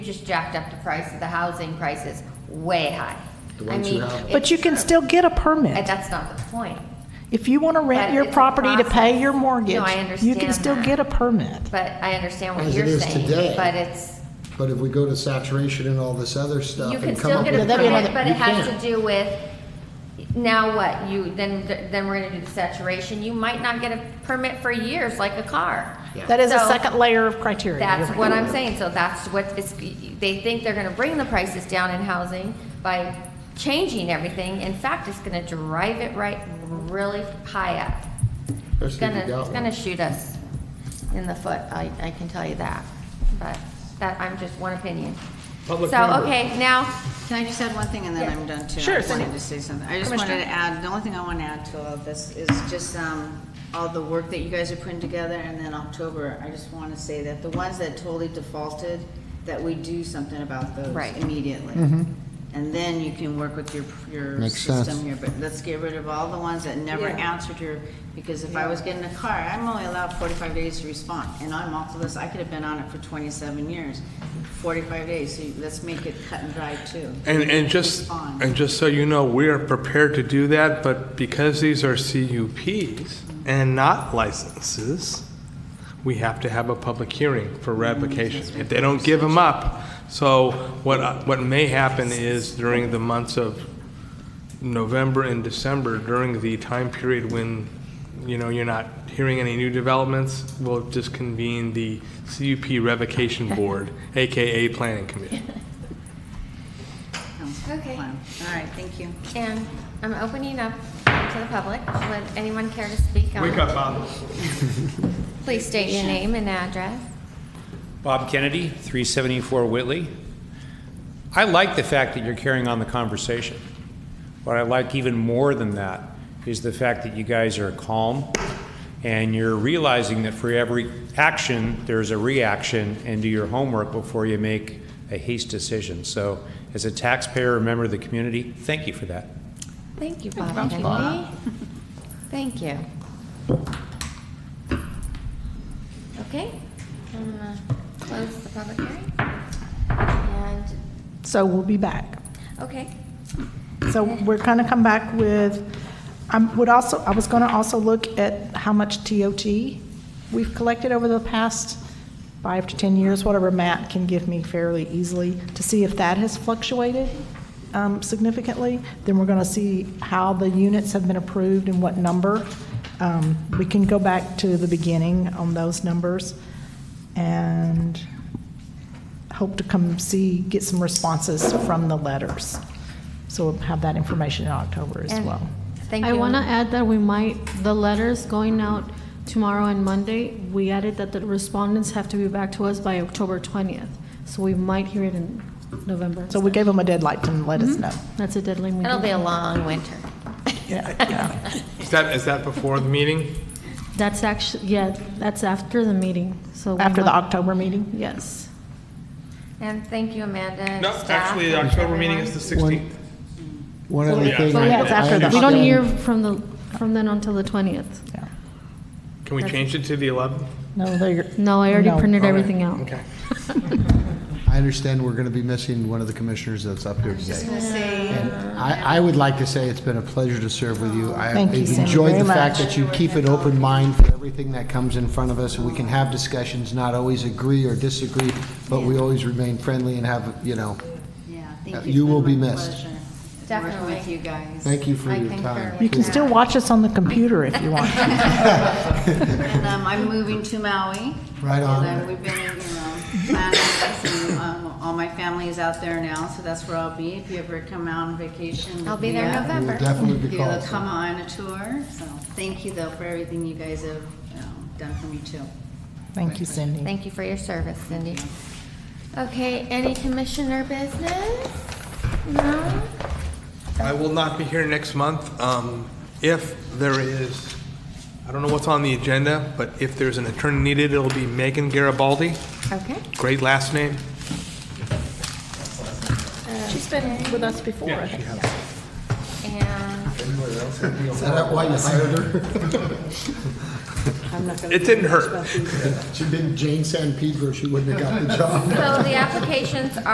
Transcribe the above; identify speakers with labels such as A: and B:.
A: just jacked up the price of the housing prices way high.
B: The
A: I
B: ones who
A: mean,
B: have them.
A: it-
C: But you can still get a
A: and
C: permit.
A: that's not the point.
C: If you want to rent
A: But
C: your
A: it's a
C: property to pay your
A: process.
C: mortgage,
A: No, I
C: you can
A: understand
C: still
A: that.
C: get a permit.
A: But I understand what
B: As it
A: you're
B: is
A: saying,
B: today.
A: but it's,
B: But if we go to saturation and all this other stuff
A: you
B: and
A: can
B: come
A: still
B: up
A: get a
B: with.
C: Yeah, that'd be
A: permit, but
C: another-
B: you
A: it has to
B: can't.
A: do with, now what, you, then, then we're gonna do the saturation, you might not get a permit for years, like a car.
C: That is a
A: So-
C: second layer of criteria.
A: That's
C: You're right.
A: what I'm saying, so that's what is, they think they're gonna bring the prices down in housing by changing everything. In fact, it's gonna drive it right, really high up. It's
B: Especially if
A: gonna,
B: you got
A: it's gonna
B: one.
A: shoot us in the foot, I, I can tell you that, but that, I'm just one opinion.
B: Public
A: So,
B: comment.
A: okay, now,
D: Can I just add one thing and then
A: Yeah.
D: I'm done too?
C: Sure,
D: I just wanted
C: Cindy.
D: to say something. I just wanted to add, the only thing I want to add to all of this is just um, all the work that you guys are putting together and then October, I just want to say that the ones that totally defaulted, that we do something about those
A: Right.
D: immediately. And then you can work with your, your
B: Mm-hmm. Makes sense.
D: system here, but let's get rid of all the ones that never answered your, because if I was getting a car, I'm only allowed forty-five days to respond. And I'm off the list, I could have been on it for twenty-seven years, forty-five days, so let's make it cut and dry too.
E: And, and just,
D: Fine.
E: and just so you know, we are prepared to do that, but because these are CUPs and not licenses, we have to have a public hearing for ratification. If they don't give them up, so what, I- what may happen is during the months of November and December, during the time period when, you know, you're not hearing any new developments, we'll just convene the CUP Revocation Board, AKA Planning Committee.
D: Okay. All right, thank you.
A: and I'm opening up to the public, would anyone care to speak on?
F: Wake up, Bob.
A: Please state your name and address.
F: Bob Kennedy, 374 Whitley. I like the fact that you're carrying on the conversation. What I like even more than that is the fact that you guys are calm and you're realizing that for every action, there's a reaction, and do your homework before you make a haste decision. So as a taxpayer, a member of the community, thank you for that.
A: Thank you, Bob Kennedy. Thank you. Okay, I'm gonna close the public hearing. And,
C: So we'll be back.
A: okay,
C: So we're going to come back with, I would also, I was going to also look at how much TOT we've collected over the past five to 10 years, whatever Matt can give me fairly easily, to see if that has fluctuated um, significantly. Then we're going to see how the units have been approved and what number. Um, We can go back to the beginning on those numbers and hope to come see, get some responses from the letters. So we'll have that information in October as
A: And-
C: well.
A: thank you.
G: I want to add that we might, the letters going out tomorrow and Monday, we added that the respondents have to be back to us by October 20th. So we might hear it in November.
C: So we gave them a deadline to let
G: Mm-hmm.
C: us know.
G: That's a deadline meeting.
A: It'll be a long winter.
C: Yeah, yeah.
E: Is that, is that before the meeting?
G: That's actually, yeah, that's after the meeting, so. we
C: After the
G: might-
C: October meeting?
G: Yes.
A: And thank you, Amanda and
E: No,
A: staff.
E: actually, the
A: and
E: October meeting is
A: everyone.
E: the 16th.
B: One other
E: Yeah.
B: thing.
C: So, yeah, it's
B: I
C: after the-
G: We don't
B: understand-
G: hear from the, from then until the 20th.
C: Yeah.
E: Can we change it to the 11th?
C: No, they're.
G: No, I already
C: No.
G: printed
E: Okay.
G: everything out.
E: Okay.
B: I understand we're going to be missing one of the commissioners that's up here today. And I, I would like to say it's been a pleasure to serve with you. I-
C: Thank you,
B: I've
C: Sam,
B: enjoyed
C: very
B: the fact
C: much.
B: that you keep an open mind for everything that comes in front of us, and we can have discussions, not always agree or disagree, but we always remain friendly and have, you know,
D: Yeah,
B: Uh,
D: thank
B: you
D: you. It's
B: will be
D: been my
B: missed.
D: pleasure Working
A: Definitely.
D: with you guys.
B: thank you for
A: I
B: your
A: concur
B: time.
A: with
C: You can
A: that.
C: still watch us on the computer if you want.
D: And um, I'm moving to Maui.
B: Right on.
D: And uh, we've been, you know, planning this, and um, all my family is out there now, so that's where I'll be. If you ever come out on vacation. with
A: I'll be there
D: me,
A: in
D: uh,
B: We will
A: November.
B: definitely be
D: You'll
B: called.
D: come on a tour, so thank you though for everything you guys have um, done for me too.
C: Thank you, Cindy.
A: Thank you for your service, Cindy. Okay, any commissioner business? No?
E: I will not be here next month. Um, If there is, I don't know what's on the agenda, but if there's an attorney needed, it'll be Megan Garibaldi.
A: Okay.
E: Great last name.
C: She's been with us before, I think.
A: And
B: Is that why you hired her?
H: I'm not gonna.
E: It didn't hurt.
H: about these.
B: She did Jane San Pedro, she wouldn't have got the job.
A: So the applications